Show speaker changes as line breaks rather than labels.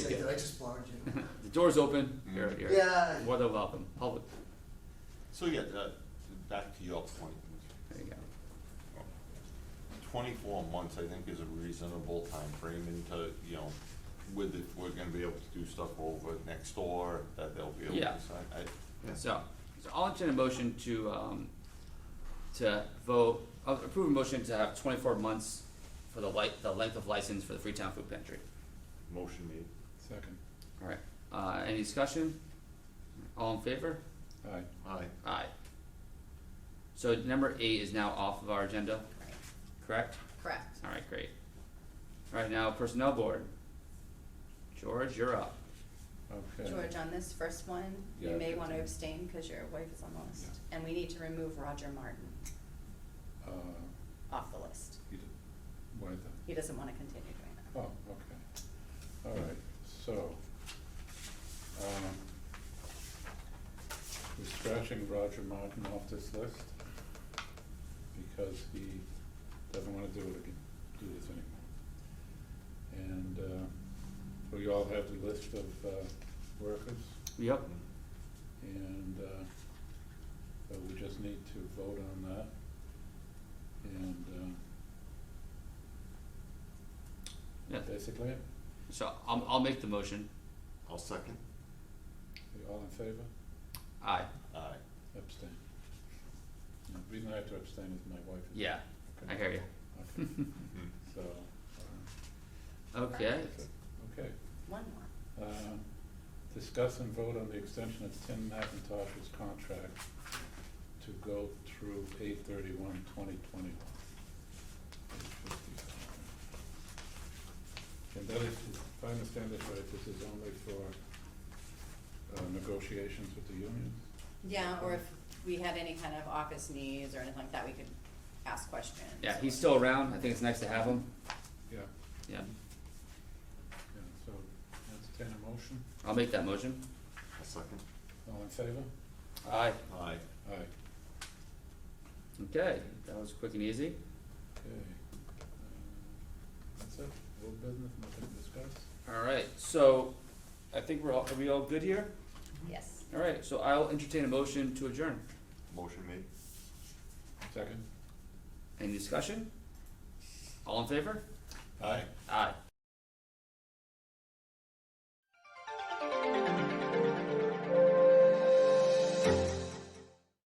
Say, did I just blind you?
The door's open, you're, you're
Yeah.
more than welcome, public,
So yeah, that, back to your point,
there you go.
twenty-four months, I think, is a reasonable timeframe into, you know, with if we're gonna be able to do stuff over next door, that they'll be able
Yeah.
to sign, I,
So, so I'll entertain a motion to, um, to vote, uh, approve a motion to have twenty-four months for the li- the length of license for the Freetown Food Pantry.
motion made.
Second,
Alright, uh, any discussion? All in favor?
aye.
Aye.
Aye. So number eight is now off of our agenda,
Right,
correct?
correct.
Alright, great. Alright, now Personnel Board. George, you're up.
Okay.
George, on this first one, you
Yeah,
may wanna
continue.
abstain, cause your wife is on the list, and we need to remove Roger Martin
Uh,
off the list.
you did- why the,
He doesn't wanna continue doing that.
oh, okay. All right, so, um, we're scratching Roger Martin off this list because he doesn't wanna do it again, do this anymore. And, uh, we all have the list of, uh, workers.
Yep.
And uh, so we just need to vote on that. And uh,
Yeah.
basically, it.
So I'll, I'll make the motion.
I'll second.
Are you all in favor?
Aye.
Aye.
Abstain. Now, The reason I have to abstain is my wife is.
Yeah, I hear you.
Okay, so, uh,
Okay,
that's it. okay.
One more.
Um, Discuss and vote on the extension of Tim McIntosh's contract to go through eight thirty-one, twenty twenty-one. And that is, if I understand this right, this is only for uh, negotiations with the union?
Yeah, or if we had any kind of office needs or anything like that, we could ask questions.
yeah, he's still around, I think it's nice to have him,
Yeah.
yeah,
Yeah, so entertain a motion.
I'll make that motion.
I'll second.
All in favor?
Aye.
Aye.
Aye.
Okay, that was quick and easy,
Okay. Uh, That's it, old business, nothing to discuss?
alright, so, I think we're all, are we all good here?
Yes.
Alright, so I'll entertain a motion to adjourn,
Motion made.
Second?
any discussion? All in favor?
Aye.
Aye.